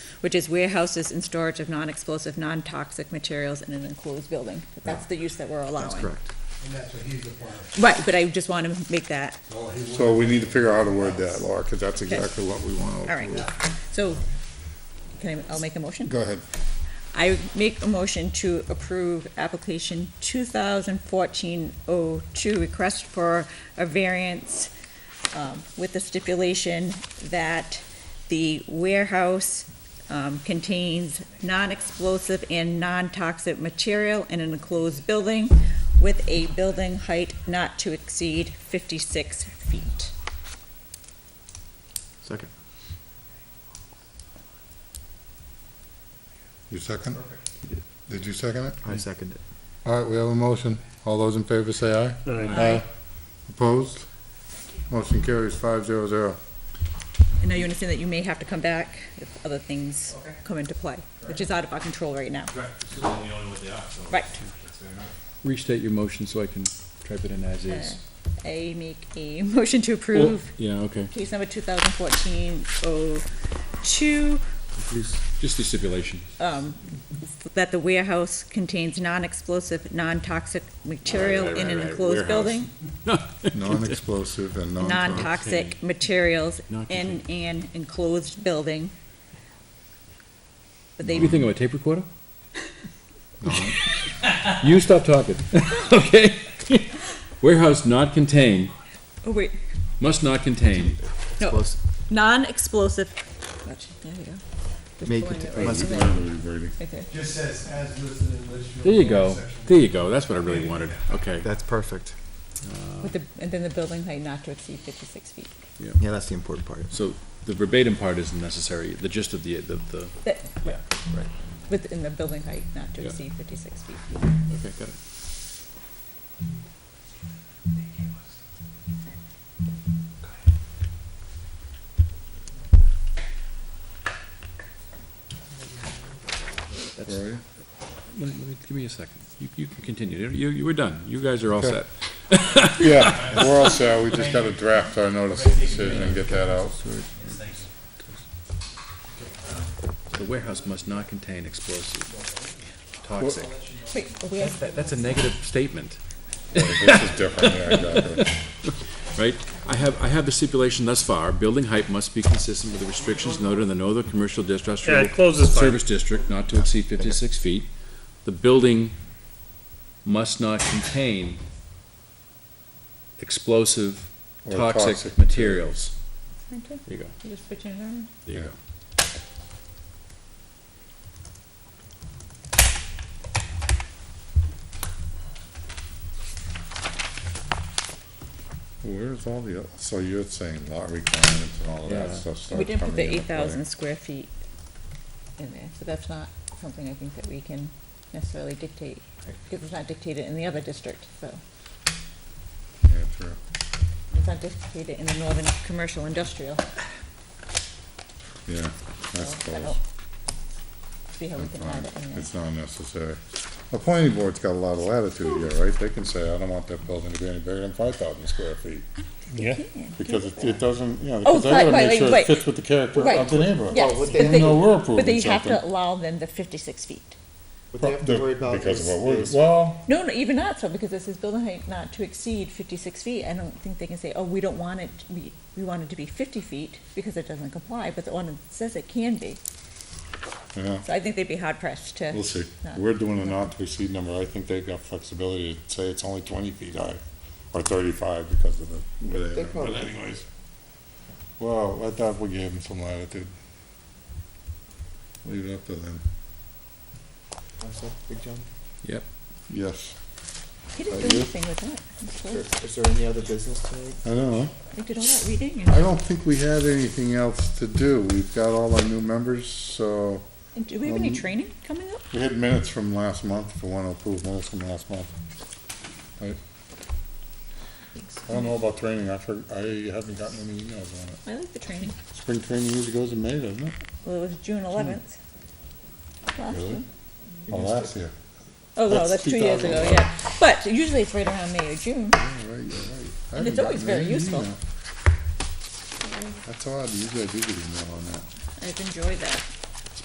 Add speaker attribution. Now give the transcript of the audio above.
Speaker 1: which is warehouses and storage of non-explosive, non-toxic materials in an enclosed building. That's the use that we're allowing.
Speaker 2: That's correct.
Speaker 3: And that's what he's a part of.
Speaker 1: Right, but I just want to make that,
Speaker 3: Well, he would-
Speaker 4: So we need to figure out how to word that, Laura, because that's exactly what we want
Speaker 1: all
Speaker 4: to
Speaker 1: right.
Speaker 4: approve.
Speaker 1: So, can I, I'll make a motion?
Speaker 4: Go ahead.
Speaker 1: I make a motion to approve application 2014-02, request for a variance um, with the stipulation that the warehouse um, contains non-explosive and non-toxic material in an enclosed building with a building height not to exceed 56 feet.
Speaker 2: Second.
Speaker 4: You second? Did you second it?
Speaker 2: I second it.
Speaker 4: All right, we have a motion. All those in favor say aye. Aye. Opposed? Motion carries five zero zero.
Speaker 1: And now you understand that you may have to come back if other things come into play, which is out of our control right now.
Speaker 5: Right, this is only what they are, so.
Speaker 1: Right.
Speaker 5: That's fair enough.
Speaker 2: Restate your motion so I can type it in as is.
Speaker 1: I make a motion to approve
Speaker 2: Yeah, okay.
Speaker 1: case number 2014-02,
Speaker 2: Please, Just the stipulation.
Speaker 1: um, that the warehouse contains non-explosive, non-toxic material
Speaker 2: right,
Speaker 1: in an
Speaker 2: right, right,
Speaker 1: enclosed
Speaker 2: warehouse.
Speaker 1: building,
Speaker 4: Non-explosive and non-toxic.
Speaker 1: non-toxic materials
Speaker 2: Not
Speaker 1: in an enclosed building. But
Speaker 2: What do you
Speaker 1: they,
Speaker 2: think of a tape recorder? You stop talking, okay? Warehouse not contain,
Speaker 1: oh wait,
Speaker 2: must not contain.
Speaker 1: no, non-explosive, gotcha, there you go. Just
Speaker 2: May
Speaker 1: pulling it
Speaker 2: cont-
Speaker 1: right
Speaker 2: must-
Speaker 1: from there. Right there.
Speaker 3: Just says as listed in Litchfield.
Speaker 2: There you go,
Speaker 3: section.
Speaker 2: there you go, that's what I really wanted, okay.
Speaker 6: That's perfect.
Speaker 1: With the, and then the building height not to exceed fifty-six feet.
Speaker 6: Yeah, that's the important part.
Speaker 2: So the verbatim part isn't necessary, the gist of the, the, the,
Speaker 1: That,
Speaker 2: yeah, right,
Speaker 1: within the building height not to
Speaker 2: Yeah.
Speaker 1: exceed fifty-six feet.
Speaker 2: okay, got it. That's-
Speaker 4: Where are you?
Speaker 2: Let me, let me, give me a second. You, you can continue. You, you were done. You guys are all
Speaker 4: Okay.
Speaker 2: set.
Speaker 4: Yeah, we're all set. We just gotta draft our notice of decision and get that out.
Speaker 2: The warehouse must not contain explosive, toxic.
Speaker 1: Wait, are we at-
Speaker 2: That, that's a negative statement,
Speaker 4: This is different, yeah, exactly.
Speaker 2: right? I have, I have the stipulation thus far. Building height must be consistent with the restrictions noted in the Northern Commercial District.
Speaker 5: Yeah, close this file.
Speaker 2: Service District, not to exceed fifty-six feet. The building must not contain explosive,
Speaker 4: Or
Speaker 2: toxic materials.
Speaker 1: Aren't we?
Speaker 2: There you go.
Speaker 1: You're just switching it around?
Speaker 2: There you go.
Speaker 4: Where's all the, so you're saying lot requirements and all of that
Speaker 2: Yeah.
Speaker 4: stuff
Speaker 1: We
Speaker 4: starts
Speaker 1: didn't put
Speaker 4: coming
Speaker 1: the
Speaker 4: into
Speaker 1: eight thousand
Speaker 4: play?
Speaker 1: square feet in there, so that's not something I think that we can necessarily dictate. It was not dictated in the other district, so
Speaker 4: Yeah, true.
Speaker 1: it's not dictated in the northern commercial industrial.
Speaker 4: Yeah, I
Speaker 1: So I
Speaker 4: suppose.
Speaker 1: don't See how we can add it in there.
Speaker 4: It's not necessary. The planning board's got a lot of latitude here, right? They can say, I don't want that building to be any bigger than five thousand square feet.
Speaker 1: Yeah.
Speaker 4: Because it, it doesn't, you know,
Speaker 1: Oh,
Speaker 4: because I
Speaker 1: right,
Speaker 4: gotta
Speaker 1: right,
Speaker 4: make sure
Speaker 1: right.
Speaker 4: it fits with the character
Speaker 1: Right.
Speaker 4: of the neighborhood.
Speaker 1: Yes,
Speaker 6: what
Speaker 1: but
Speaker 6: they-
Speaker 1: they,
Speaker 4: Even though we're
Speaker 1: but they
Speaker 4: approving
Speaker 1: have to
Speaker 4: something.
Speaker 1: allow them the fifty-six feet.
Speaker 6: What they have to worry about
Speaker 4: Because
Speaker 6: is,
Speaker 4: of what we're,
Speaker 6: is
Speaker 4: well,
Speaker 1: No, no, even not so, because this is building height not to exceed fifty-six feet, I don't think they can say, oh, we don't want it, we, we want it to be fifty feet, because it doesn't comply, but the ordinance says it can be,
Speaker 4: yeah,
Speaker 1: so I think they'd be hard pressed to.
Speaker 4: we'll see.
Speaker 1: not-
Speaker 4: We're doing a not to exceed number. I think they've got flexibility to say it's only twenty feet high or thirty-five because of the, where they
Speaker 6: They
Speaker 4: are. but
Speaker 6: probably-
Speaker 4: anyways. Well, I thought we gave them some latitude. Leave it up to them.
Speaker 6: What's that, Big John?
Speaker 4: Yes,
Speaker 1: He didn't do
Speaker 4: Are you?
Speaker 1: anything with that, That's
Speaker 6: Sure.
Speaker 1: close.
Speaker 6: Is there any other business tonight?
Speaker 4: I don't know.
Speaker 1: they did all that reading
Speaker 4: I
Speaker 1: and,
Speaker 4: don't think we have anything else to do. We've got all our new members, so
Speaker 1: and do we have any
Speaker 4: Um,
Speaker 1: training coming up?
Speaker 4: we had minutes from last month, if we want to approve minutes from last month. Right? I don't know about training. I for, I haven't gotten any emails on it.
Speaker 1: I like the training,
Speaker 4: Spring training usually goes in May, doesn't it?
Speaker 1: well, it was June eleventh.
Speaker 4: Really? Oh, last year.
Speaker 1: Oh, no,
Speaker 4: That's
Speaker 1: that's two years ago, yeah, but usually it's right around May or June,
Speaker 4: All right, all right. I
Speaker 1: And it's
Speaker 4: haven't
Speaker 1: always
Speaker 4: gotten
Speaker 1: very
Speaker 4: any
Speaker 1: useful.
Speaker 4: email. That's odd. Usually I do get email on that.
Speaker 1: I've enjoyed that.